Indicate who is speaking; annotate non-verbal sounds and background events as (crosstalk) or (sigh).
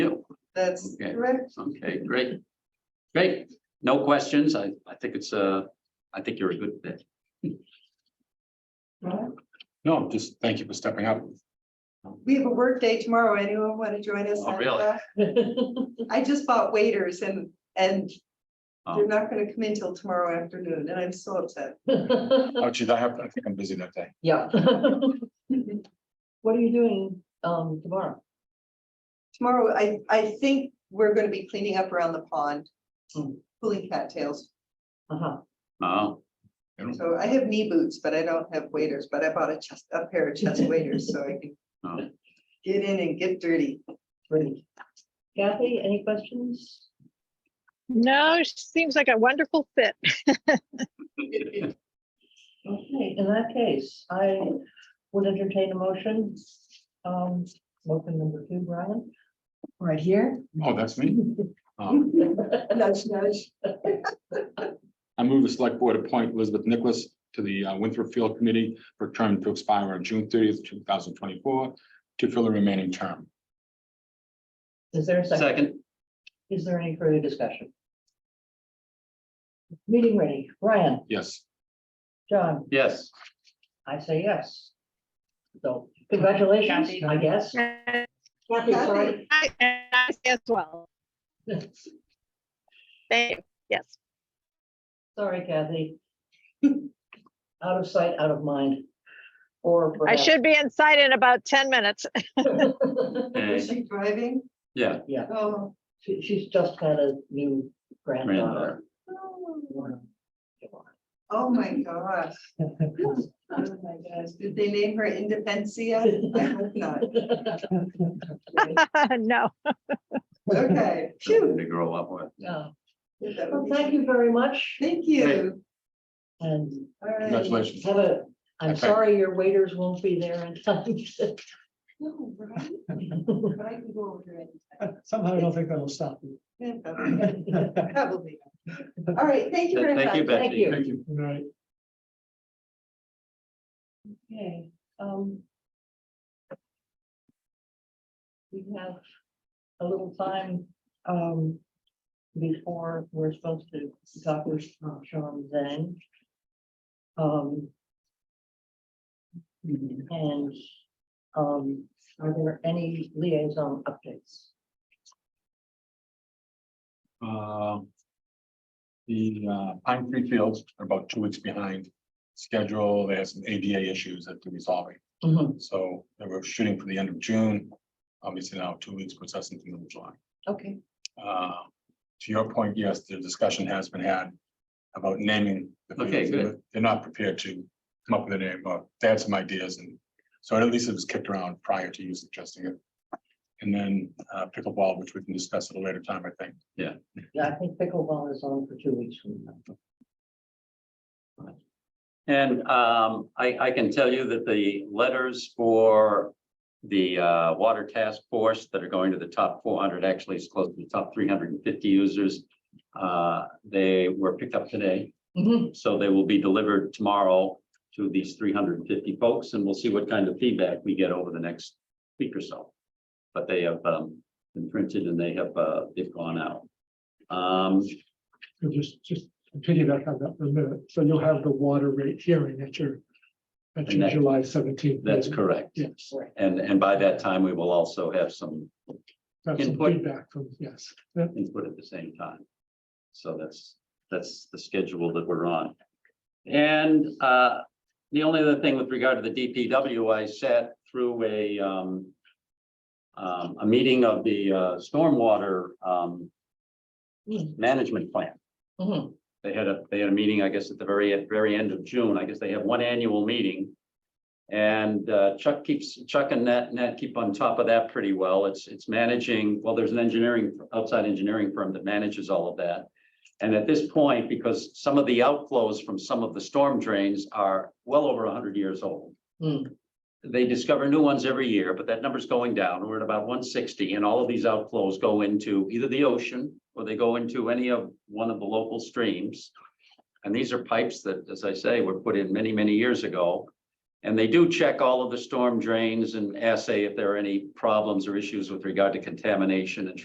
Speaker 1: That's
Speaker 2: Okay.
Speaker 1: correct.
Speaker 2: Okay, great. Great. No questions. I, I think it's uh I think you're a good fit.
Speaker 1: Right.
Speaker 3: No, just thank you for stepping up.
Speaker 1: We have a work day tomorrow. Anyone want to join us?
Speaker 2: Oh,
Speaker 1: on
Speaker 2: really?
Speaker 1: that? I just bought waiters and, and they're
Speaker 2: Um,
Speaker 1: not gonna come in till tomorrow afternoon and I'm so upset.
Speaker 3: Oh, geez, I have, I think I'm busy that day.
Speaker 4: Yeah. What are you doing um tomorrow?
Speaker 1: Tomorrow, I, I think we're gonna be cleaning up around the pond,
Speaker 4: Hmm.
Speaker 1: pulling cattails.
Speaker 4: Uh-huh.
Speaker 2: Oh,
Speaker 1: So I have knee boots, but I don't have waders, but I bought a chest, a pair of chest waders so I can
Speaker 2: oh.
Speaker 1: get in and get dirty.
Speaker 4: Great. Kathy, any questions?
Speaker 5: No, she seems like a wonderful fit.
Speaker 2: (laughs)
Speaker 4: Okay, in that case, I would entertain a motion. Um, motion number two, Brian. Right here.
Speaker 3: Oh, that's me. Um,
Speaker 4: Nudge, nudge.
Speaker 3: I move the select board appoint Elizabeth Nicholas to the uh, Winthrop Field Committee for a term to expire on June thirtieth, two thousand twenty-four, to fill the remaining term.
Speaker 4: Is there a second?
Speaker 2: Second,
Speaker 4: Is there any further discussion? Meeting ready. Brian,
Speaker 3: Yes,
Speaker 4: John,
Speaker 2: yes.
Speaker 4: I say yes. So congratulations, I guess.
Speaker 5: I,
Speaker 4: Kathy, sorry.
Speaker 5: and I say as well. Thank you. Yes.
Speaker 4: (laughs) Sorry,
Speaker 6: (laughs)
Speaker 4: Kathy. Out of sight, out of mind. Or. (laughs)
Speaker 5: I
Speaker 4: perhaps-
Speaker 5: should be inside in about 10 minutes. (laughs)
Speaker 1: Is
Speaker 2: Eh,
Speaker 1: she driving?
Speaker 2: Yeah,
Speaker 1: Oh.
Speaker 4: She, she's just had a new granddaughter.
Speaker 2: granddaughter.
Speaker 1: Oh, my gosh. Oh, my gosh. Did they name her Independencia? I hope not.
Speaker 5: No.
Speaker 1: Okay. Phew.
Speaker 2: Something To grow up with.
Speaker 4: (laughs) Yeah.
Speaker 1: That
Speaker 4: Well,
Speaker 1: would be-
Speaker 4: thank you very much
Speaker 1: Thank you.
Speaker 4: and
Speaker 1: All right.
Speaker 3: congratulations.
Speaker 4: have a, I'm
Speaker 3: Okay.
Speaker 4: sorry your waiters won't be there in time.
Speaker 1: No, right? But I can go over there
Speaker 6: (laughs) Somehow I don't think that'll stop you.
Speaker 1: anytime.
Speaker 4: (laughs)
Speaker 1: Probably. All right, thank you very much.
Speaker 2: Thank you,
Speaker 4: Thank
Speaker 2: Betsy.
Speaker 4: you.
Speaker 3: Thank you.
Speaker 6: Right.
Speaker 4: Okay, um. We have a little time, um, before we're supposed to talk with uh, Sean Zhang. Um. And, um, are there any liaison updates?
Speaker 3: Uh, The uh, Pine Tree Fields are about two weeks behind schedule. They have some ADA issues that they're resolving.
Speaker 4: Mm-hmm.
Speaker 3: So they were shooting for the end of June. Obviously now two weeks puts us into the middle of July.
Speaker 4: Okay,
Speaker 3: Uh, To your point, yes, the discussion has been had about naming. the fields.
Speaker 2: Okay, good.
Speaker 3: They're not prepared to come up with a name, but they had some ideas and so at least it was kicked around prior to you suggesting it. And then uh, pickleball, which we can discuss at a later time, I think.
Speaker 4: yeah, I think pickleball is on for two weeks from now.
Speaker 2: And um, I, I can tell you that the letters for the uh, water task force that are going to the top four hundred, actually it's close to the top three hundred and fifty users. Uh, they were picked up today,
Speaker 4: Mhm.
Speaker 2: so they will be delivered tomorrow to these three hundred and fifty folks, and we'll see what kind of feedback we get over the next week or so. But they have um, been printed and they have, uh, they've gone out. Um,
Speaker 6: So Just, just piggyback on that for a minute. So you'll have the water rate hearing at your, at
Speaker 2: And
Speaker 6: your
Speaker 2: that-
Speaker 6: July seventeenth.
Speaker 2: that's correct.
Speaker 6: Yes.
Speaker 4: Right.
Speaker 2: And, and by that time, we will also have some
Speaker 6: That's some
Speaker 2: Input.
Speaker 6: feedback from, yes. Yeah.
Speaker 2: input at the same time. So that's, that's the schedule that we're on. And uh, the only other thing with regard to the DPW, I sat through a um, um, a meeting of the uh, stormwater um,
Speaker 4: Hmm.
Speaker 2: management plan.
Speaker 4: Mhm.
Speaker 2: They had a, they had a meeting, I guess, at the very, at very end of June. I guess they have one annual meeting. And uh, Chuck keeps, Chuck and Nat, Nat keep on top of that pretty well. It's, it's managing, well, there's an engineering, outside engineering firm that manages all of that. And at this point, because some of the outflows from some of the storm drains are well over hundred years old.
Speaker 4: Hmm.
Speaker 2: They discover new ones every year, but that number's going down. We're at about one sixty and all of these outflows go into either the ocean or they go into any of one of the local streams. And these are pipes that, as I say, were put in many, many years ago. And they do check all of the storm drains and assay if there are any problems or issues with regard to contamination and